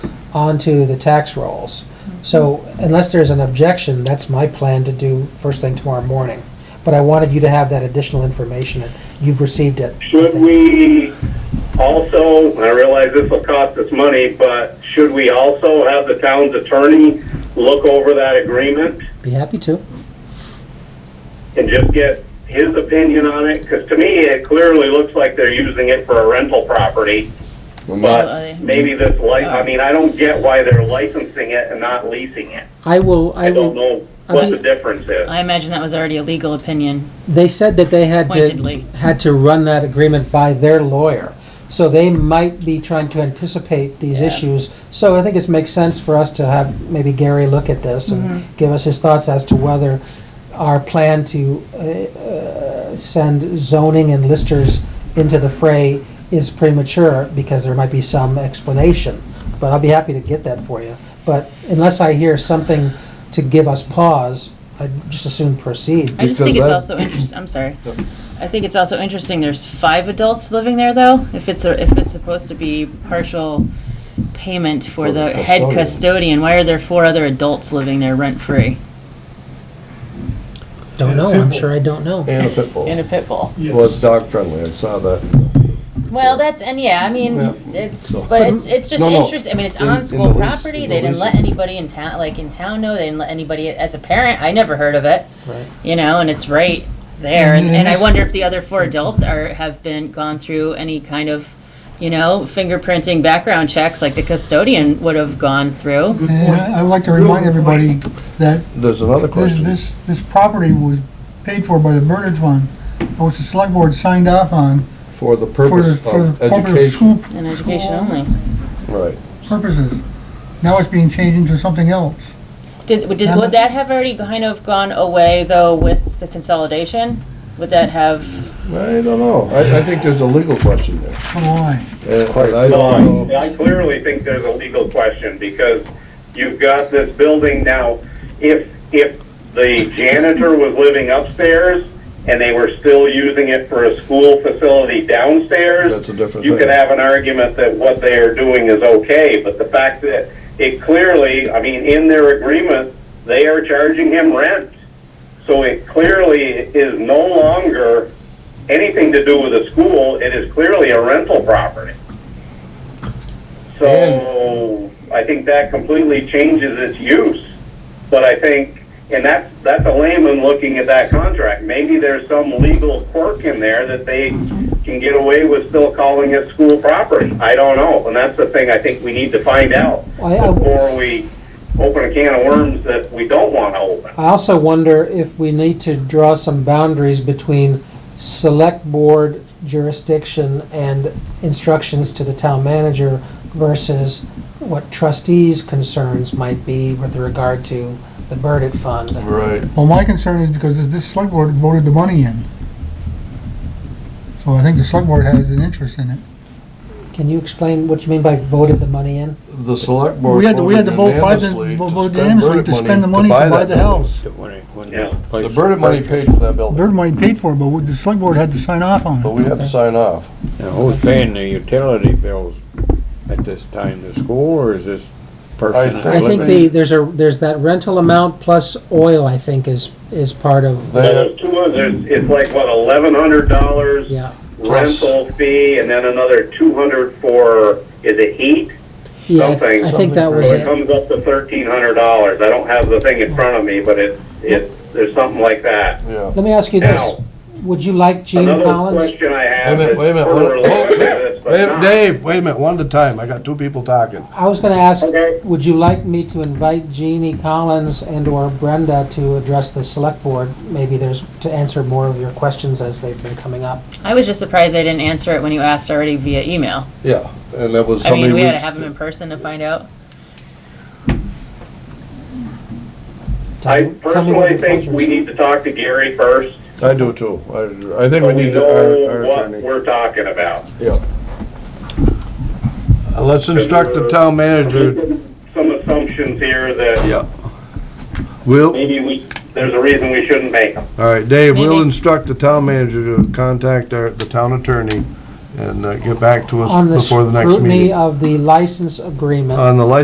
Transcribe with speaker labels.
Speaker 1: onto the tax rolls. So unless there's an objection, that's my plan to do first thing tomorrow morning. But I wanted you to have that additional information, and you've received it. I
Speaker 2: Should
Speaker 1: think.
Speaker 2: we also, I realize this will cost us money, but should we also have the town's attorney look over that agreement
Speaker 1: Be happy to.
Speaker 2: and just get his opinion on it? Because to me, it clearly looks like they're using it for a rental property,
Speaker 3: Well, no,
Speaker 4: Oh,
Speaker 2: but maybe this license, I mean, I don't get why they're licensing it and not leasing it.
Speaker 1: I will, I
Speaker 2: I
Speaker 1: will,
Speaker 2: don't know
Speaker 1: I
Speaker 2: what
Speaker 1: mean-
Speaker 2: the difference is.
Speaker 4: I imagine that was already a legal opinion.
Speaker 1: they said that they had to,
Speaker 4: Pointedly.
Speaker 1: had to run that agreement by their lawyer. So they might be trying to anticipate these issues. So I think it makes sense for us to have maybe Gary look at this and give us his thoughts as to whether our plan to uh, uh, send zoning and listers into the fray is premature, because there might be some explanation. But I'll be happy to get that for you. But unless I hear something to give us pause, I'd just as soon proceed.
Speaker 4: I just think it's
Speaker 3: Because
Speaker 4: also interesting, I'm sorry. I think it's also interesting, there's five adults living there though, if it's, a- if it's supposed to be partial payment for
Speaker 3: For the
Speaker 4: the head
Speaker 3: custodian.
Speaker 4: custodian, why are there four other adults living there rent-free?
Speaker 1: Don't know, I'm sure I don't know.
Speaker 3: and a pit bull.
Speaker 4: In a pit bull.
Speaker 3: It was dog friendly, I saw that.
Speaker 5: Well, that's, and yeah, I mean,
Speaker 3: Yeah.
Speaker 5: it's,
Speaker 3: So-
Speaker 5: but it's, it's just
Speaker 3: No, no.
Speaker 5: interest, I mean, it's
Speaker 3: In- in
Speaker 5: on
Speaker 3: the
Speaker 5: school
Speaker 3: lease,
Speaker 5: property,
Speaker 3: in
Speaker 5: they
Speaker 3: the
Speaker 5: didn't let
Speaker 3: lease.
Speaker 5: anybody in town, like, in town know, they didn't let anybody, as a parent, I never heard of it,
Speaker 1: Right.
Speaker 4: You know, and it's right there, and, and I
Speaker 3: Mm-hmm.
Speaker 4: wonder if the other four adults are, have been, gone through any kind of, you know, fingerprinting background checks like the custodian would have gone through.
Speaker 3: Mm-hmm.
Speaker 6: And I'd like to remind everybody that
Speaker 3: There's another
Speaker 6: this,
Speaker 3: question.
Speaker 6: this, this property was paid for by the Burnage Fund, which the select board signed off on
Speaker 3: For the
Speaker 6: for the,
Speaker 3: purpose
Speaker 6: for the
Speaker 3: of
Speaker 6: purpose of
Speaker 3: education.
Speaker 6: school.
Speaker 4: And education only.
Speaker 3: Right.
Speaker 6: Purposes. Now it's being changed into something else.
Speaker 4: Did, did, would that have already kind of gone away though with the consolidation? Would that have,
Speaker 3: I don't know. I, I think there's a legal question there.
Speaker 6: So why?
Speaker 3: And I don't
Speaker 2: Well,
Speaker 3: know.
Speaker 2: I I clearly think there's a legal question, because you've got this building now, if, if the janitor was living upstairs and they were still using it for a school facility downstairs.
Speaker 3: That's a different
Speaker 2: You could
Speaker 3: thing.
Speaker 2: have an argument that what they are doing is okay, but the fact that it clearly, I mean, in their agreement, they are charging him rent. So it clearly is no longer anything to do with the school, it is clearly a rental property. So I think that completely changes its use. But I think, and that's, that's a layman looking at that contract. Maybe there's some legal quirk in there that they can get away with still calling it school property. I don't know, and that's the thing I think we need to find out
Speaker 1: I- I-
Speaker 2: before we open a can of worms that we don't want to open.
Speaker 1: I also wonder if we need to draw some boundaries between select board jurisdiction and instructions to the town manager versus what trustees' concerns might be with regard to the Burdett Fund.
Speaker 3: Right.
Speaker 6: Well, my concern is because this, this select board voted the money in. So I think the select board has an interest in it.
Speaker 1: Can you explain what you mean by voted the money in?
Speaker 3: The select board
Speaker 6: We had to- we had
Speaker 3: voted
Speaker 6: to vote five to-
Speaker 3: unanimously to
Speaker 6: vote
Speaker 3: spend
Speaker 6: unanimously
Speaker 3: Burnett
Speaker 6: to spend the money to buy
Speaker 3: that
Speaker 6: the
Speaker 3: building.
Speaker 6: house.
Speaker 2: Yeah.
Speaker 3: The Burnett money paid for that building,
Speaker 6: Bird money paid for it, but we- the select board had to sign off on
Speaker 3: but
Speaker 6: it.
Speaker 3: we had to sign off.
Speaker 7: Now, who's paying the utility bills at this time, the school or is this person?
Speaker 3: I
Speaker 1: I think
Speaker 3: Well,
Speaker 1: the,
Speaker 3: they-
Speaker 1: there's a, there's that rental amount plus oil, I think, is, is part of,
Speaker 2: So
Speaker 3: They,
Speaker 2: There's two others, it's like, what, eleven hundred dollars?
Speaker 1: yeah.
Speaker 3: Plus-
Speaker 2: rental fee and then another two hundred for, is it heat?
Speaker 1: Yeah, I-
Speaker 2: Something-
Speaker 1: I think that
Speaker 3: something
Speaker 1: was
Speaker 2: So it
Speaker 1: it.
Speaker 2: comes up to thirteen hundred dollars. I don't have the thing in front of me, but it, it, there's something like that.
Speaker 3: yeah.
Speaker 1: Let me ask you this,
Speaker 2: Now,
Speaker 1: would you like Gene
Speaker 2: another
Speaker 1: Collins?
Speaker 2: question I
Speaker 3: Wait a
Speaker 2: have is
Speaker 3: minute, wait a minute,
Speaker 2: further
Speaker 3: wait a-
Speaker 2: related to this, but
Speaker 3: Wait a minute,
Speaker 2: not-
Speaker 3: Dave, wait a minute, one at a time. I got two people talking.
Speaker 1: I was gonna ask,
Speaker 2: Okay.
Speaker 1: would you like me to invite Jeannie Collins and/or Brenda to address the select board? Maybe there's, to answer more of your questions as they've been coming up.
Speaker 4: I was just surprised I didn't answer it when you asked already via email.
Speaker 3: Yeah, and that was
Speaker 4: I
Speaker 3: how many
Speaker 4: mean,
Speaker 3: weeks?
Speaker 4: we had to have them in person to find out.
Speaker 1: Tell
Speaker 2: I
Speaker 1: me- tell me what the
Speaker 2: personally think
Speaker 1: pleasure
Speaker 2: we
Speaker 1: is.
Speaker 2: need to talk to Gary first,
Speaker 3: I do too. I, I think
Speaker 2: so
Speaker 3: we
Speaker 2: we
Speaker 3: need to, our,
Speaker 2: know
Speaker 3: our
Speaker 2: what
Speaker 3: attorney.
Speaker 2: we're talking about.
Speaker 3: Yeah. Uh, Let's instruct the town manager,
Speaker 2: Some assumptions here that
Speaker 3: yeah. We'll,
Speaker 2: maybe we, there's a reason we shouldn't make them.
Speaker 3: all right, Dave, we'll
Speaker 4: Maybe.
Speaker 3: instruct the town manager to contact our, the town attorney and uh, get back to
Speaker 1: On
Speaker 3: us
Speaker 1: the
Speaker 3: before the next
Speaker 1: scrutiny
Speaker 3: meeting.
Speaker 1: of the license agreement.
Speaker 3: On the license